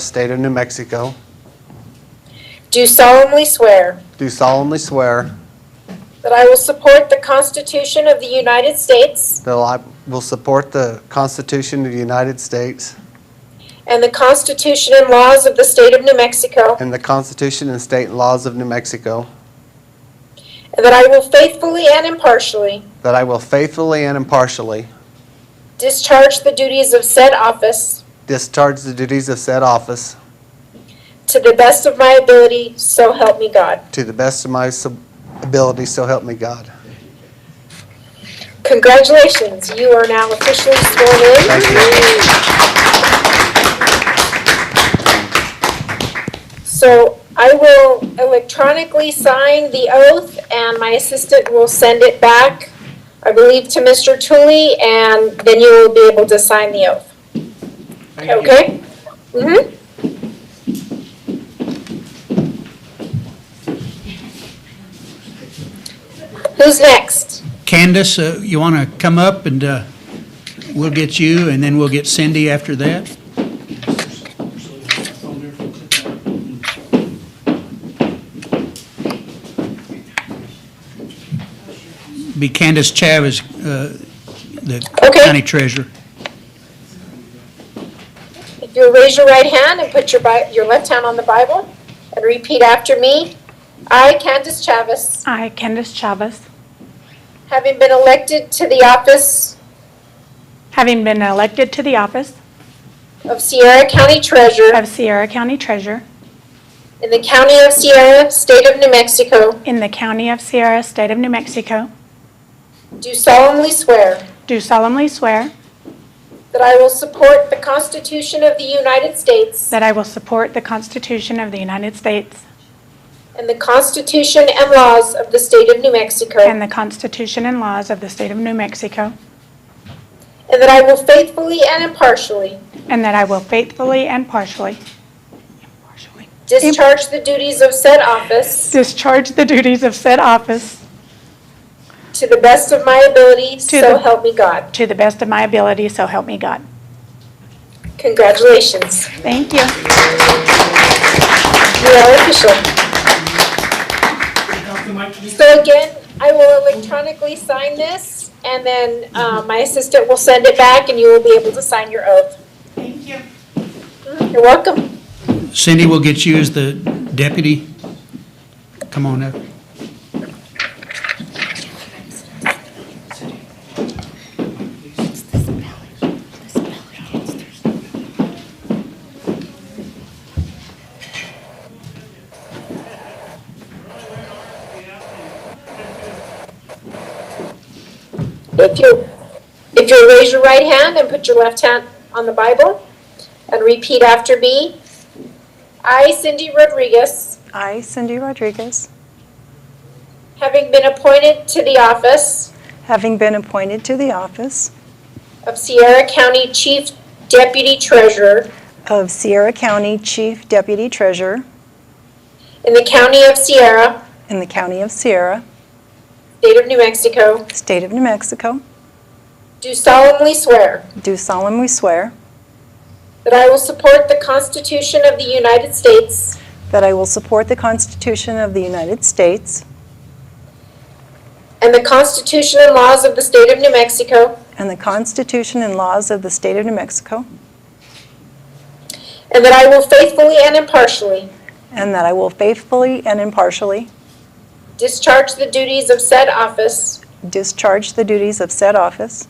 State of New Mexico, Do solemnly swear do solemnly swear that I will support the Constitution of the United States that I will support the Constitution of the United States and the Constitution and laws of the State of New Mexico, and the Constitution and state laws of New Mexico, and that I will faithfully and impartially that I will faithfully and impartially discharge the duties of said office discharge the duties of said office to the best of my ability, so help me God. to the best of my sub- ability, so help me God. Congratulations, you are now officially sworn in. Thank you. So I will electronically sign the oath, and my assistant will send it back, I believe, to Mr. Tully, and then you will be able to sign the oath. Okay? Mm-hmm. Who's next? Candace, uh, you want to come up and uh, we'll get you, and then we'll get Cindy after that? Be Candace Chavez, uh, the Okay. county treasurer. If you'll raise your right hand and put your Bi- your left hand on the Bible, and repeat after me. I, Candace Chavez. I, Candace Chavez, Having been elected to the office having been elected to the office of Sierra County Treasurer of Sierra County Treasurer in the County of Sierra, State of New Mexico, in the County of Sierra, State of New Mexico, do solemnly swear do solemnly swear that I will support the Constitution of the United States that I will support the Constitution of the United States and the Constitution and laws of the State of New and Mexico, the Constitution and laws of the State of New Mexico, and that I will faithfully and impartially and that I will faithfully and partially impartially, discharge the duties of said office discharge the duties of said office to the best of my ability, so the- help me God. to the best of my ability, so help me God. Congratulations. Thank you. You are official. So again, I will electronically sign this, and then uh, my assistant will send it back, and you will be able to sign your oath. Thank you. You're welcome. Cindy will get you as the deputy. Come on up. If you, if you raise your right hand and put your left hand on the Bible, and repeat after me. I, Cindy Rodriguez, I, Cindy Rodriguez, having been appointed to the office having been appointed to the office of Sierra County Chief Deputy Treasurer of Sierra County Chief Deputy Treasurer in the County of Sierra, in the County of Sierra, State of New Mexico, State of New Mexico, do solemnly swear do solemnly swear that I will support the Constitution of the United States that I will support the Constitution of the United States and the Constitution and laws of the State of New Mexico, and the Constitution and laws of the State of New Mexico, and that I will faithfully and impartially and that I will faithfully and impartially discharge the duties of said office discharge the duties of said office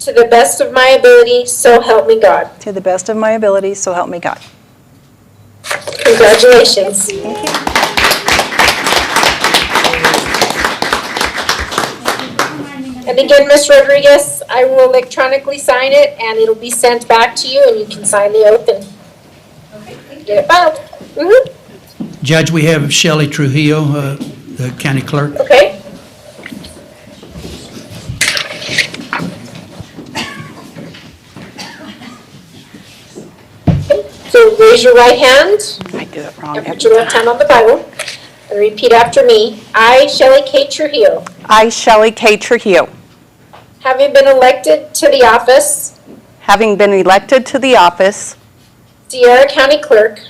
to the best of my ability, so help me God. to the best of my ability, so help me God. Congratulations. And again, Ms. Rodriguez, I will electronically sign it, and it'll be sent back to you, and you can sign the oath and get it filed. Mhm, Judge, we have Shelley Trujillo, uh, the county clerk. Okay. Okay, So raise your right hand. I do it And wrong. put your left hand on the Bible and repeat after me. I, Shelley K. Trujillo, I, Shelley K. Trujillo, having been elected to the office having been elected to the office Sierra County Clerk